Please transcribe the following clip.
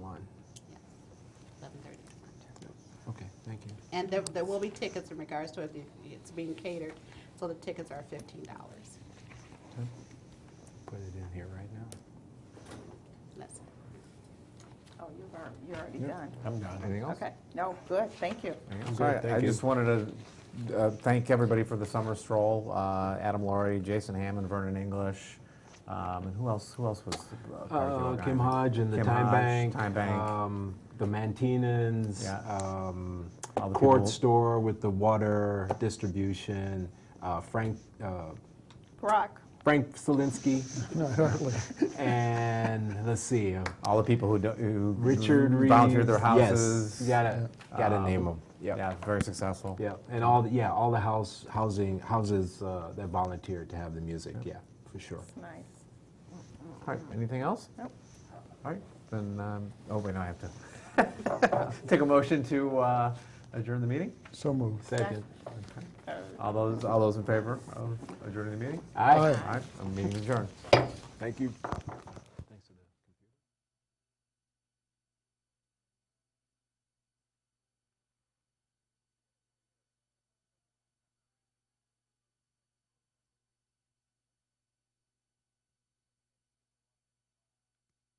one. eleven thirty. Okay, thank you. And there, there will be tickets in regards to it, it's being catered, so the tickets are fifteen dollars. Okay. Put it in here right now. That's it. Oh, you've already, you're already Yep. done. I'm done. Anything else? Okay, no, good, thank you. Anything else? All right, Thank I you. just wanted to uh, thank everybody for the summer stroll. Uh, Adam Laurie, Jason Hammond, Vernon English, um, and who else? Who else was? uh, part of the Uh, Kim organizing? Hodge and the Kim Time Hodge, Bank. Time Bank. um, The Mantinans. Yeah. um, All the Court people- Store with the water distribution. uh, Frank, uh, Brock, Frank Selinsky. No, hardly. And let's see, uh, All the people who, do, who Richard Reeves. volunteered Mm-hmm. their Yes, houses. Uh, You gotta, gotta name them. Yeah, very successful. Yeah, and all, the yeah, all the house, housing, houses uh, that volunteered to have the music, yeah, for sure. nice. All right, anything else? Nope. All right, then. Um, oh wait, no, I have to take a motion to uh, adjourn the meeting. So moved. Second. All those, all those in favor of adjourning the meeting? All right, Aye. All right, the meeting is adjourned. thank you.